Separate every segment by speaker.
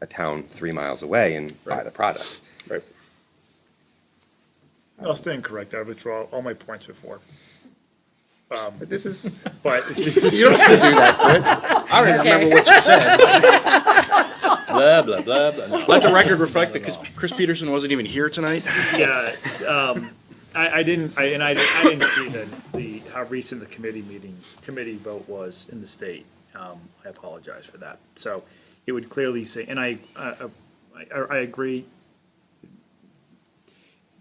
Speaker 1: a town three miles away and buy
Speaker 2: Right.
Speaker 1: the product.
Speaker 2: Right.
Speaker 3: I'll stand correct. I withdraw all my points before. Um,
Speaker 1: But this is,
Speaker 3: But
Speaker 1: you don't have to do that, Chris.
Speaker 2: I don't even remember what you said. Blah, blah, blah, blah. No. Let the record reflect that Chris- Chris Peterson wasn't even here tonight.
Speaker 3: yeah, um, I, I didn't, I, and I, I didn't see the, the, how recent the committee meeting, committee vote was in the state. Um, I apologize for that. So it would clearly say, and I, uh, I, I, I agree.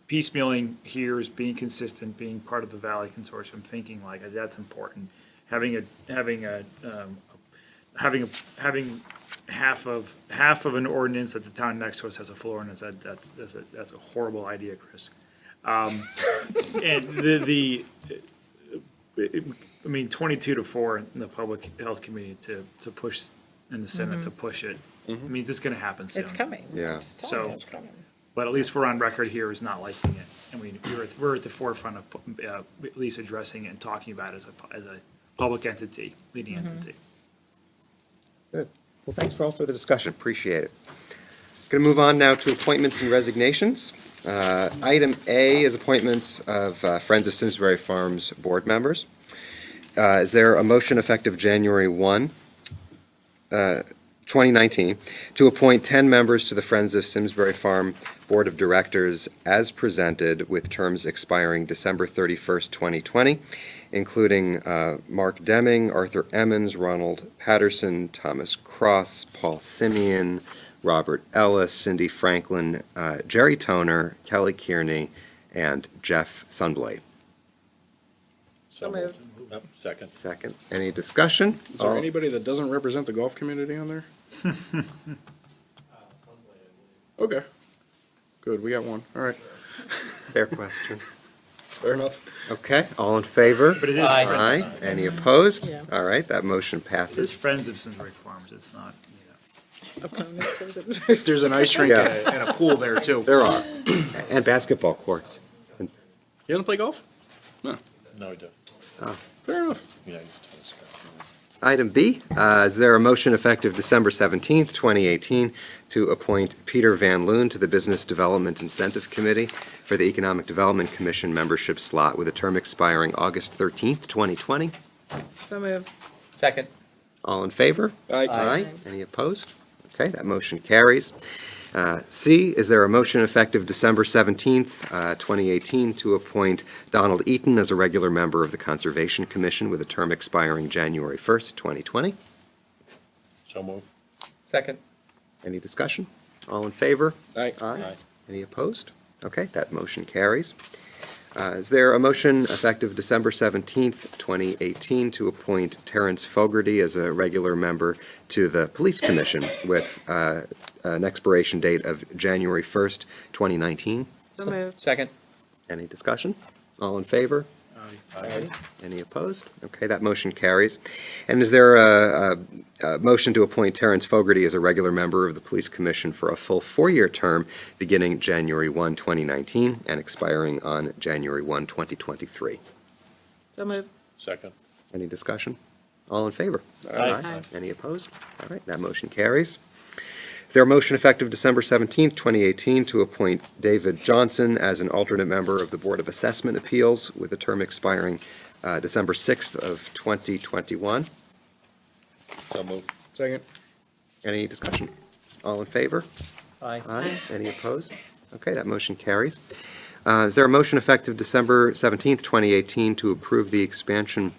Speaker 3: Piecemealing here is being consistent, being part of the Valley Consortium, thinking like, that's important. Having a, having a, um, having, a- having half of, half of an ordinance that the town next to us has a floor ordinance, that, that's, that's a, that's a horrible idea, Chris. Um, and the, the, I mean, twenty-two to four in the public health committee to, to push, in the Senate to push it. I mean, this is gonna happen soon.
Speaker 4: Mm-hmm. It's coming.
Speaker 1: Yeah.
Speaker 4: Just tell them
Speaker 3: So-
Speaker 4: it's coming.
Speaker 3: But at least we're on record here as not liking it. I mean, we're, at- we're at the forefront of, uh, at least addressing it and talking about it as a, pu- as a public entity, leading entity.
Speaker 1: Good. Well, thanks for all for the discussion. Appreciate it. Going to move on now to appointments and resignations. Uh, Item A is appointments of uh, Friends of Simsbury Farms board members. Uh, Is there a motion effective January 1, uh, 2019, to appoint 10 members to the Friends of Simsbury Farm Board of Directors as presented with terms expiring December 31st, 2020, including uh, Mark Deming, Arthur Emmons, Ronald Patterson, Thomas Cross, Paul Simeon, Robert Ellis, Cindy Franklin, uh, Jerry Toner, Kelly Kearney, and Jeff Sunblade.
Speaker 4: So moved.
Speaker 5: Yep, Second.
Speaker 1: Second, any discussion?
Speaker 2: Is there
Speaker 1: All-
Speaker 2: anybody that doesn't represent the golf community on there? Okay. Good, we got one. All right,
Speaker 1: Fair question.
Speaker 2: fair enough.
Speaker 1: Okay, all in favor?
Speaker 3: But it is.
Speaker 5: Aye.
Speaker 3: friends-
Speaker 1: Aye. Any opposed?
Speaker 4: Yeah.
Speaker 1: All right, that motion
Speaker 3: It is
Speaker 1: passes.
Speaker 3: Friends of Simsbury Farms, it's not, you know.
Speaker 4: Opponents, is it-
Speaker 2: There's an ice rink and
Speaker 1: Yeah.
Speaker 2: a, and a pool there too.
Speaker 1: There are. And basketball courts.
Speaker 2: You wanna play golf?
Speaker 5: No, I don't.
Speaker 2: Fair enough.
Speaker 5: Yeah, you just had a discussion.
Speaker 1: Item B, uh, is there a motion effective December 17th, 2018, to appoint Peter Van Loon to the Business Development Incentive Committee for the Economic Development Commission membership slot with a term expiring August 13th, 2020?
Speaker 4: So moved.
Speaker 5: Second.
Speaker 1: All in favor?
Speaker 2: Aye.
Speaker 1: Aye. Any opposed? Okay, that motion carries. Uh, C, is there a motion effective December 17th, uh, 2018, to appoint Donald Eaton as a regular member of the Conservation Commission with a term expiring January 1st, 2020?
Speaker 5: So move. Second.
Speaker 1: Any discussion? All in favor?
Speaker 2: Aye.
Speaker 1: Aye.
Speaker 5: Aye.
Speaker 1: Any opposed? Okay, that motion carries. Uh, Is there a motion effective December 17th, 2018, to appoint Terrence Fogarty as a regular member to the Police Commission with uh, an expiration date of January 1st, 2019?
Speaker 4: So moved.
Speaker 5: Second.
Speaker 1: Any discussion? All in favor?
Speaker 5: Aye.
Speaker 1: Any opposed? Okay, that motion carries. And is there a, a, a motion to appoint Terrence Fogarty as a regular member of the Police Commission for a full four-year term beginning January 1, 2019, and expiring on January 1, 2023?
Speaker 4: So moved.
Speaker 5: Second.
Speaker 1: Any discussion? All in favor?
Speaker 5: Aye.
Speaker 4: Aye.
Speaker 1: Any opposed? All right, that motion carries. Is there a motion effective December 17th, 2018, to appoint David Johnson as an alternate member of the Board of Assessment Appeals with a term expiring uh, December 6th of 2021?
Speaker 5: So move.
Speaker 2: Second.
Speaker 1: Any discussion? All in favor?
Speaker 5: Aye.
Speaker 1: Aye. Any opposed? Okay, that motion carries. Uh, Is there a motion effective December 17th, 2018, to approve the expansion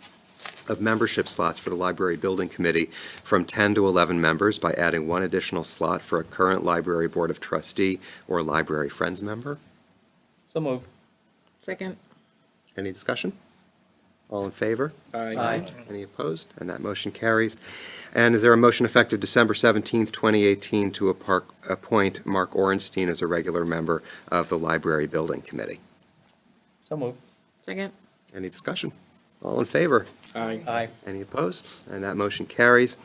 Speaker 1: of membership slots for the Library Building Committee from 10 to 11 members by adding one additional slot for a current Library Board of Trustee or Library Friends member?
Speaker 5: So move.
Speaker 4: Second.
Speaker 1: Any discussion? All in favor?
Speaker 2: Aye.
Speaker 1: Any opposed? And that motion carries. And is there a motion effective December 17th, 2018, to a park- appoint Mark Orenstein as a regular member of the Library Building Committee?
Speaker 5: So move.
Speaker 4: Second.
Speaker 1: Any discussion? All in favor?
Speaker 2: Aye.
Speaker 5: Aye.
Speaker 1: Any opposed? And that motion carries.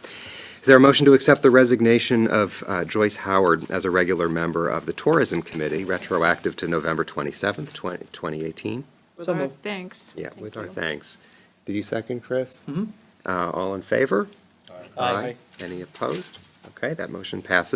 Speaker 1: Is there a motion to accept the resignation of uh, Joyce Howard as a regular member of the Tourism Committee, retroactive to November 27th, 20- 2018?
Speaker 4: With
Speaker 5: So
Speaker 4: our
Speaker 5: moved.
Speaker 4: thanks.
Speaker 1: Yeah,
Speaker 4: Thank
Speaker 1: with our
Speaker 4: you.
Speaker 1: thanks. Did you second, Chris? Mm-hmm. All in favor?
Speaker 2: Aye.
Speaker 1: Any opposed? Okay, that motion passes.